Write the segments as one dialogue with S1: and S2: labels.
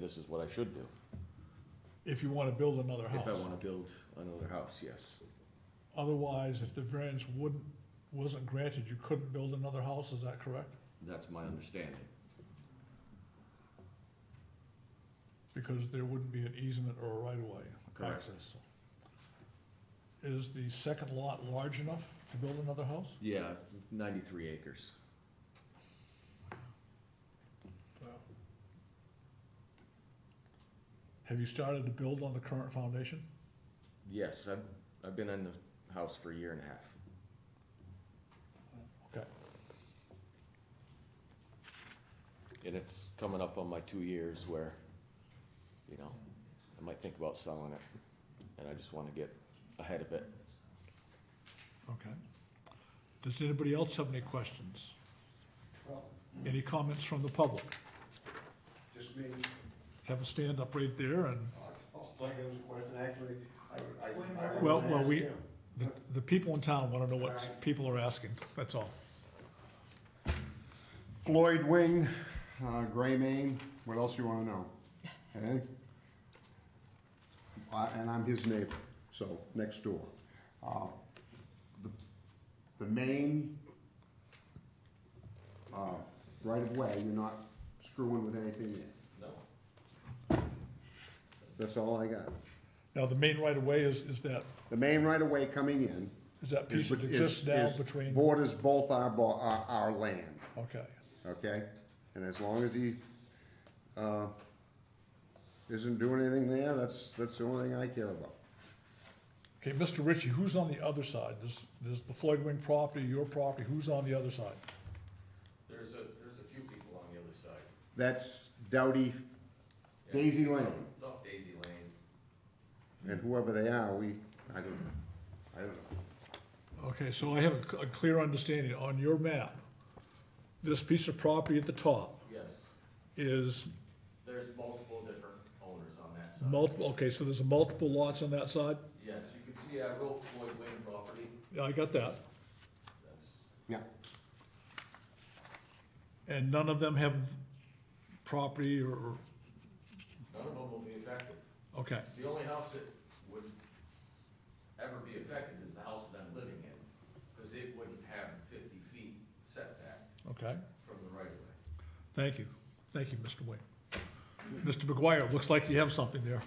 S1: this is what I should do,
S2: if you want to build another
S1: if I
S2: house.
S1: wanna build another house, yes.
S2: Otherwise, if the variance wouldn't, wasn't granted, you couldn't build another house, is that correct?
S1: That's my understanding.
S2: Because there wouldn't be an easement or a right-of-way
S1: Correct.
S2: access. Is the second lot large enough to build another house?
S1: Yeah, ninety-three acres.
S2: Have you started to build on the current foundation?
S1: Yes, I've, I've been in the house for a year and a half.
S2: Okay,
S1: And it's coming up on my two years where, you know, I might think about selling it, and I just wanna get ahead of it.
S2: okay. Does anybody else have any questions? Any comments from the public?
S3: Just me, Oh,
S2: Have a stand up right there and
S3: it's like it was a question, actually, I, I. I- I
S2: Well,
S3: wanna
S2: well,
S3: ask
S2: we-
S3: him.
S2: the, the people in town want to know what people are asking, that's all.
S3: Floyd Wing, uh, Gray Mane, what else you wanna know? Okay? I- Uh, And I'm his neighbor, so, next door. Uh, the- The main, uh, right of way, you're not screwing with anything yet.
S1: No.
S3: That's all I got.
S2: Now, the main right of way is, is that,
S3: The main right of way coming in.
S2: is that
S3: is
S2: piece that
S3: bet-
S2: exists
S3: is-
S2: now
S3: is-
S2: between,
S3: Borders both our, bo- our, our land.
S2: okay,
S3: okay? And as long as he, uh, isn't doing anything there, that's, that's the only thing I care about.
S2: okay, Mr. Ritchie, who's on the other side? There's, there's the Floyd Wing property, your property, who's on the other side?
S1: There's a, there's a few people on the other side.
S3: That's Doughty Daisy Lane,
S1: It's off Daisy Lane.
S3: and whoever they are, we, I don't, I don't know.
S2: Okay, so I have a c- a clear understanding, on your map, this piece of property at the top
S4: Yes,
S2: is
S4: there's multiple different owners on that side.
S2: multiple, okay, so there's multiple lots on that side?
S4: Yes, you can see I wrote Floyd Wing property,
S2: Yeah, I got that.
S4: that's,
S3: Yeah,
S2: And none of them have property or,
S4: none of them will be affected.
S2: okay,
S4: The only house that would ever be affected is the house that I'm living in, because it wouldn't have fifty feet setback
S2: okay.
S4: from the right of way.
S2: Thank you. Thank you, Mr. Wing. Mr. McGuire, looks like you have something there.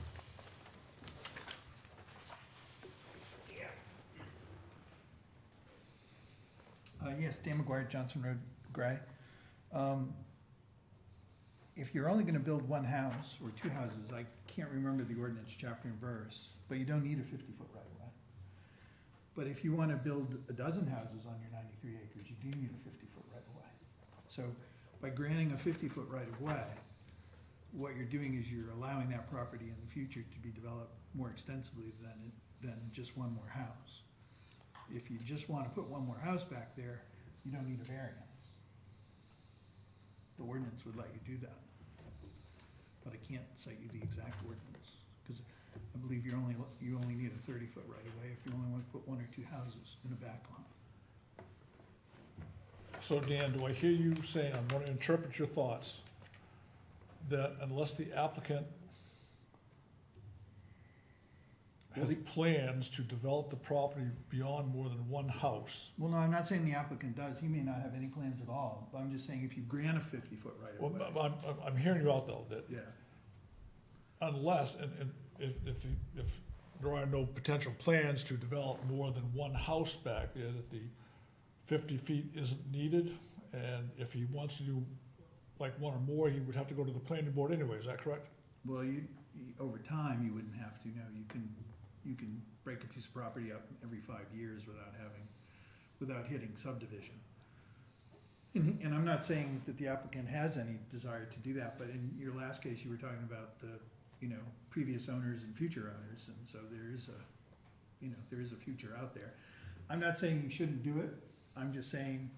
S5: Uh, yes, Dan McGuire, Johnson Road, Gray. Um, if you're only gonna build one house or two houses, I can't remember the ordinance chapter and verse, but you don't need a fifty-foot right of way. But if you wanna build a dozen houses on your ninety-three acres, you do need a fifty-foot right of way. So by granting a fifty-foot right of way, what you're doing is you're allowing that property in the future to be developed more extensively than, than just one more house if you just wanna put one more house back there, you don't need a variance. The ordinance would let you do that. But I can't cite you the exact ordinance, cause I believe you're only, you only need a thirty-foot right-of-way if you only wanna put one or two houses in a back lot.
S2: So Dan, do I hear you saying, I'm gonna interpret your thoughts, that unless the applicant has plans to develop the property beyond more than one house,
S5: Well, no, I'm not saying the applicant does, he may not have any plans at all, but I'm just saying if you grant a fifty-foot
S2: well,
S5: right-of-way,
S2: I'm, I'm- I'm hearing you out though, that
S5: yeah,
S2: unless, and, and if, if, if there are no potential plans to develop more than one house back there, that the fifty feet isn't needed, and if he wants to do like one or more, he would have to go to the planning board anyway, is that correct?
S5: well, you, you- over time, you wouldn't have to, no, you can, you can break a piece of property up every five years without having, without hitting subdivision. And, and I'm not saying that the applicant has any desire to do that, but in your last case, you were talking about the, you know, previous owners and future owners, and so there is a, you know, there is a future out there. I'm not saying you shouldn't do it, I'm just saying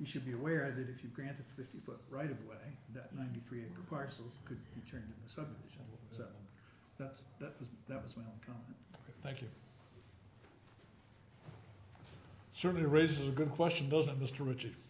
S5: you should be aware that if you grant a fifty-foot right-of-way, that ninety-three acre parcels could be turned into subdivision, so that's, that was, that was my only comment.
S2: Okay, Thank you. Certainly raises a good question, doesn't it, Mr. Ritchie?